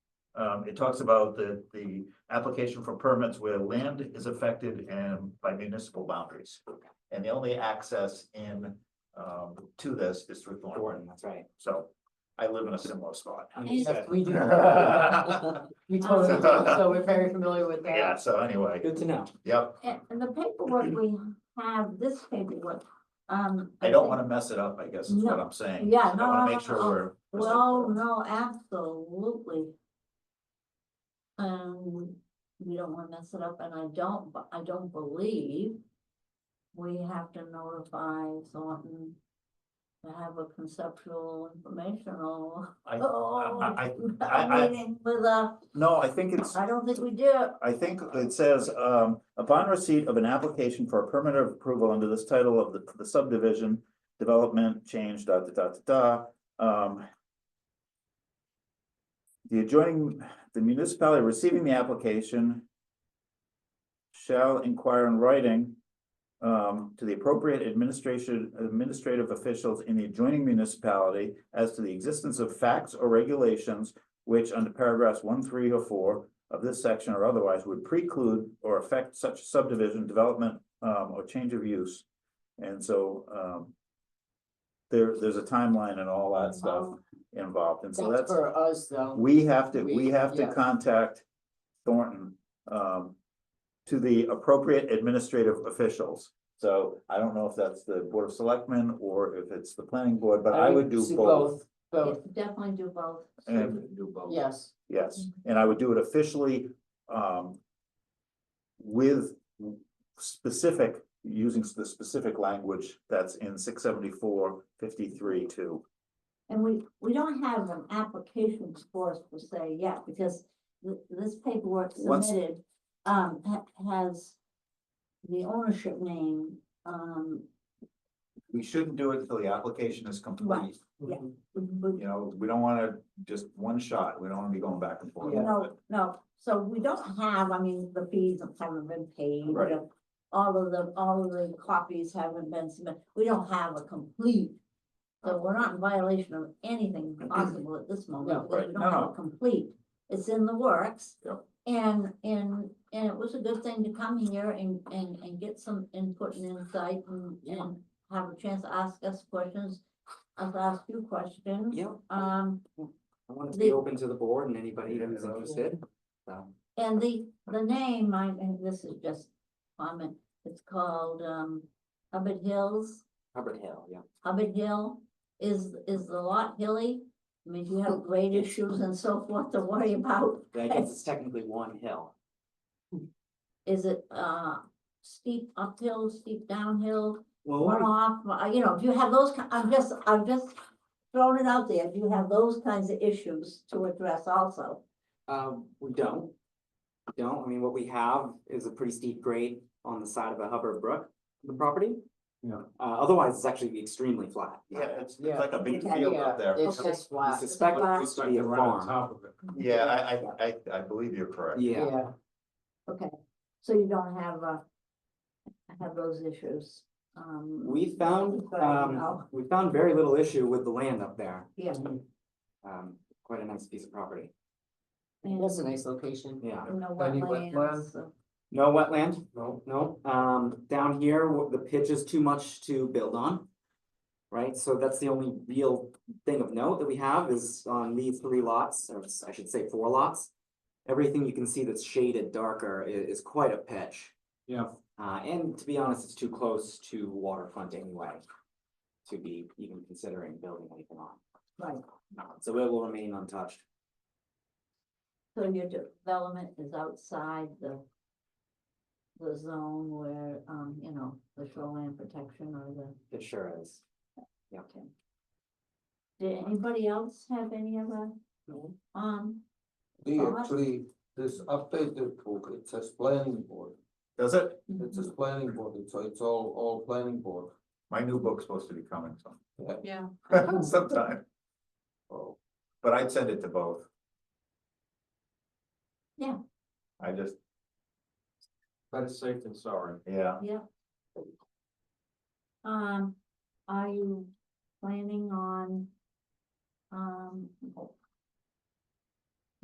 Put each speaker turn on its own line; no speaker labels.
um, it talks about the, the application for permits where land is affected and by municipal boundaries. And the only access in, um, to this is through Thornton,
Thornton, that's right.
so I live in a similar spot.
Yes, we do.
We totally do, so we're very familiar with that.
Yeah, so anyway,
Good to know.
yep,
And, and the paperwork we have, this paperwork, um.
I don't
think-
wanna mess it up, I guess is what I'm saying.
Yeah,
I
no,
wanna
no,
make
no,
sure
no.
we're.
Well, no, absolutely. Um, we don't wanna mess it up, and I don't, but I don't believe. We have to notify Thornton. To have a conceptual informational.
I, I, I,
oh,
I- I-
Meeting with a,
no, I think it's,
I don't think we did.
I think it says, um, upon receipt of an application for a permit of approval under this title of the, the subdivision. Development change, da, da, da, da, da, um. The adjoining, the municipality receiving the application. Shall inquire in writing. Um, to the appropriate administration, administrative officials in the adjoining municipality as to the existence of facts or regulations. Which under paragraphs one, three, or four of this section or otherwise would preclude or affect such subdivision development um or change of use. And so um. There, there's a timeline and all that stuff involved, and so
That's
that's,
for us, though.
we have to, we
We-
have to
yeah.
contact Thornton. Um, to the appropriate administrative officials, so I don't know if that's the Board of Selectmen or if it's the planning board, but I would do
see
both.
Yeah,
Both,
Definitely do both.
And
yes,
Yes,
Mhm.
and I would do it officially, um. With specific, using the specific language that's in six seventy-four fifty-three two.
And we, we don't have an application for us per se yet, because th- this paperwork
Once-
submitted, um, ha- has the ownership name, um,
We shouldn't do it until the application is
Right.
complete,
Mm-hmm.
w- w-
you know, we don't wanna just one shot, we don't wanna be going back and forth.
Yeah.
no, no, so we don't have, I mean, the fees have haven't been paid. we
Right.
don't- All of the, all of the copies haven't been submitted, we don't have a complete, so we're not in violation of anything possible at this
No.
moment, because we
Right,
don't have
no.
a complete, it's in the works.
Yep.
And, and, and it was a good thing to come here and, and, and get some input and insight and,
Yeah.
and have a chance to ask us questions. Us ask you questions,
Yeah, I
um,
want to
the-
be open to the board and anybody who's
Yeah.
interested. So,
And the, the name, I, and this is just comment, it's called, um, Hubbard Hills,
Hubbard Hill, yeah.
Hubbard Hill. Is, is the lot hilly? I mean, do you have grade issues and so forth to worry about?
I guess it's technically one hill.
Is it, uh, steep uphill, steep downhill,
Well,
runoff, Uh, you know, do you have those, ki- I'm just, I'm just throwing it out there, do you have those kinds of issues to address also?
Um, we don't. We Don't, I mean, what we have is a pretty steep grade on the side of the Hubbard Brook, the property.
Yeah.
Uh, otherwise, it's actually exactremely flat.
it's,
Yeah.
a big
Yeah.
yeah, it's
Okay.
just
I
flat,
suspect it
flat.
used to be a farm.
top of it.
Yeah, I, I, I, I believe you're correct.
Yeah,
yeah.
Okay, so you don't have, uh, have those issues, um.
we found,
but,
um,
no.
we found very little issue with the land up there.
Yeah,
Um, quite a nice piece of property,
and
That's a nice location.
yeah.
no
Any
wetlands,
wetlands?
so-
No wetland,
No,
no, um, down here, w- the pitch is too much to build on. Right, so that's the only real thing of note that we have is on these three lots, or s- I should say four lots. Everything you can see that's shaded darker i- is quite a pitch,
yeah,
uh, and to be honest, it's too close to waterfront anyway. To be even considering building anything on,
Right,
so it will remain untouched.
so your development is outside the. The zone where, um, you know, the shoreline protection or the,
It sure is. Yeah.
okay. Did anybody else have any other,
No.
um,
they actually, this updated book, it says planning board,
Does it?
it says planning board, it's, it's all, all planning board.
My new book's supposed to be coming
Yeah.
sometime, sometime. Oh, But I'd send it to both.
Yeah.
I just,
Better safe than sorry.
yeah.
um, are you planning on? Um,